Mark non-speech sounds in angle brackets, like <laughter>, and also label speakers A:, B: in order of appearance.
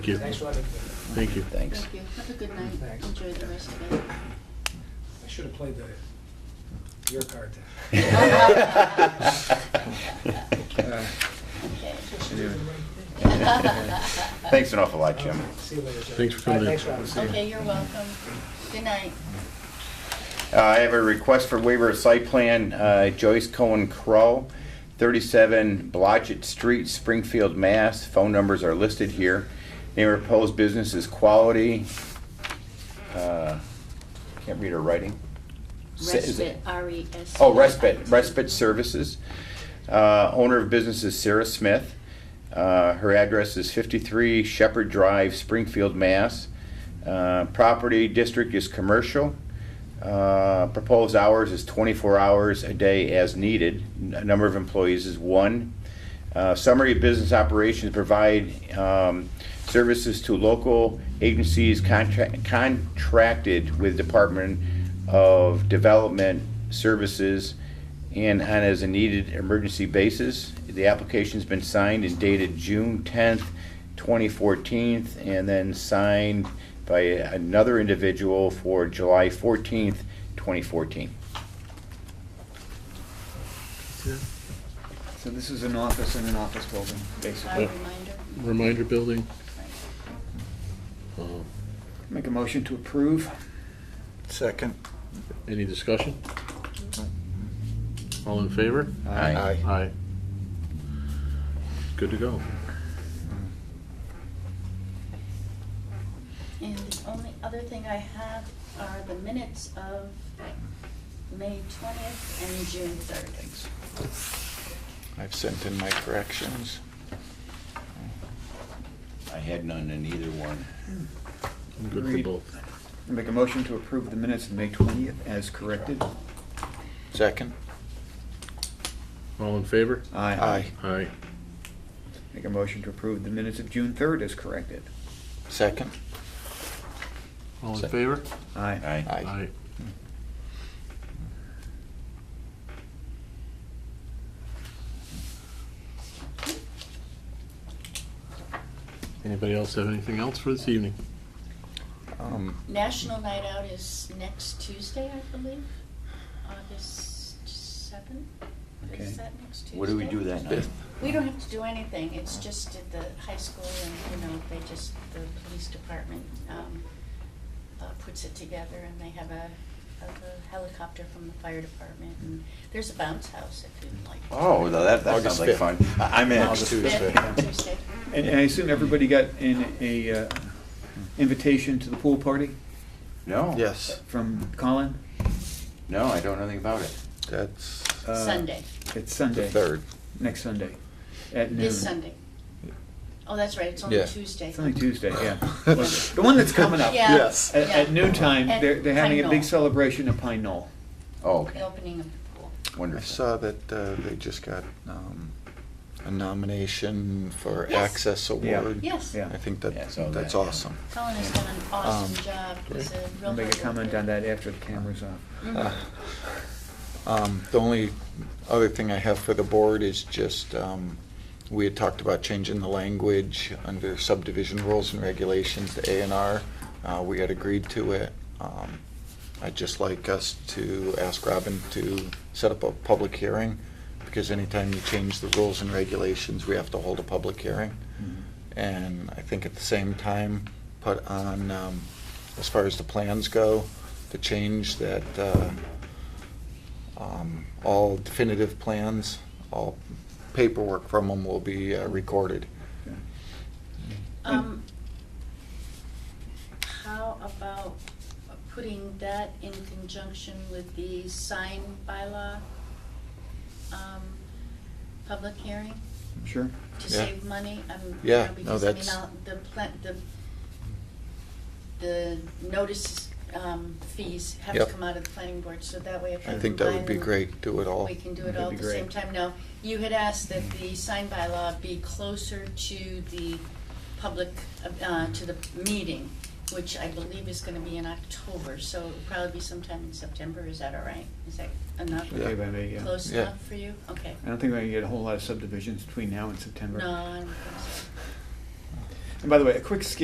A: Thank you.
B: Thanks for letting me.
A: Thank you.
C: Thanks.
D: Thank you. Have a good night.
B: Thanks.
D: Enjoy the rest of it.
B: I should have played the, your card. Uh,
C: Anyway.
D: Thanks.
C: <laughs> Thanks an awful lot, Jim.
B: See you later, Jerry.
A: Thanks for
B: All right,
A: coming in.
B: Thanks, Robin.
D: Okay, you're welcome. Good night.
C: Uh, I have a request for waiver of site plan, uh, Joyce Cohen Crow, 37 Blodgett Street, Springfield, Mass. Phone numbers are listed here. Name of proposed business is Quality, uh, can't read her writing. Sa- is it-
D: Respite, E R-E-S.
C: Oh, Respite, Respite Services. Uh, Owner of business is Sarah Smith. Uh, Her address is 53 Shepherd Drive, Springfield, Mass. Uh, Property district is commercial. Uh, Proposed hours is 24 hours a day as needed. N- Number of employees is one. Uh, Summary of business operations, provide um, services to local agencies contra- contracted with Department of Development Services and on as a needed emergency basis. The application's been signed and dated June 10th, 2014, and then signed by another individual for July 14th, 2014.
E: So this is an office in an office building,
D: Our
E: basically.
D: reminder.
A: Reminder building. Uh,
E: Make a motion to approve.
F: Second.
A: Any discussion? All in favor?
C: Aye.
A: Aye. Good to go.
D: And the only other thing I have are the minutes of May twentieth and June third. Thanks.
F: I've sent in my corrections.
C: I had none in either one.
A: I'm good for
E: Agreed.
A: both.
E: Make a motion to approve the minutes of May 20th as corrected.
F: Second.
A: All in favor?
F: Aye.
A: Aye.
E: Make a motion to approve the minutes of June 3rd as corrected.
F: Second.
A: All in
C: Second.
A: favor?
E: Aye.
A: Aye. Anybody else have anything else for this evening?
F: Um,
D: National Night Out is next Tuesday, I believe, August seventh.
C: Okay.
D: Is that next Tuesday?
C: What do we do that night?
D: We don't have to do anything, it's just at the high school and, you know, they just, the police department, um, uh, puts it together and they have a, a helicopter from the fire department and there's a bounce house if you'd like.
C: Oh, no, that, that
F: August
C: sounds like fun.
F: 5th.
C: I- I'm in.
F: August
D: Tuesday. Tuesday.
E: And and I assume everybody got an, a uh, invitation to the pool party
C: No.
F: Yes,
E: from Colin?
C: No, I don't know anything about it.
F: that's
E: Uh,
D: Sunday,
E: It's
F: the
E: Sunday,
F: third.
E: next Sunday, at noon.
D: this Sunday. Oh, that's right, it's only
F: Yeah.
D: Tuesday.
E: It's only Tuesday,
F: <laughs>
E: yeah. The one that's coming up.
D: Yeah.
F: Yes.
E: At- At
D: yeah.
E: noon time,
D: At
E: they're, they're having a
D: Pine
E: big
D: Knoll.
E: celebration at Pine Knoll.
C: Oh,
D: The
C: okay,
D: opening of the pool.
F: I
C: wonderful.
F: saw that uh, they just got um, a nomination for
D: Yes.
F: Access
E: Yeah.
F: Award.
D: Yes.
E: Yeah.
F: I think
C: Yeah, I
F: that,
C: saw
F: that's
C: that.
F: awesome.
D: Colin has done an awesome
F: Um,
D: job, he's a real hard
E: I'll make a comment
D: worker.
E: on that after the camera's off.
D: Mhm.
F: Uh, Um, The only other thing I have for the board is just, um, we had talked about changing the language under subdivision rules and regulations, the A and R. Uh, We had agreed to it. Um, I'd just like us to ask Robin to set up a public hearing, because anytime you change the rules and regulations, we have to hold a public hearing.
E: Mm-hmm.
F: And I think at the same time, put on, um, as far as the plans go, the change that uh, um, all definitive plans, all paperwork from them will be uh, recorded.
D: Um, how about putting that in conjunction with the sign bylaw, um, public hearing
E: Sure?
D: to
F: Yeah.
D: save money? Um, you know,
F: Yeah, no,
D: because, I mean,
F: that's-
D: I'll- The pla- the, the notice, um, fees have to
F: Yep.
D: come out of the planning board, so that way if I
F: I think that would
D: combine
F: be
D: them,
F: great, do it all.
D: we can do it
E: That'd
D: all
E: be
D: at the same
E: great.
D: time. Now, you had asked that the sign bylaw be closer to the public, uh, to the meeting, which I believe is gonna be in October, so it'll probably be sometime in September, is that all right? Is that enough?
E: Okay, by me, yeah.
D: Close
F: Yeah.
D: enough for you? Okay.
E: I don't think we're gonna get a whole lot of subdivisions between now and September.
D: No, I'm,
E: And by the way, a quick scan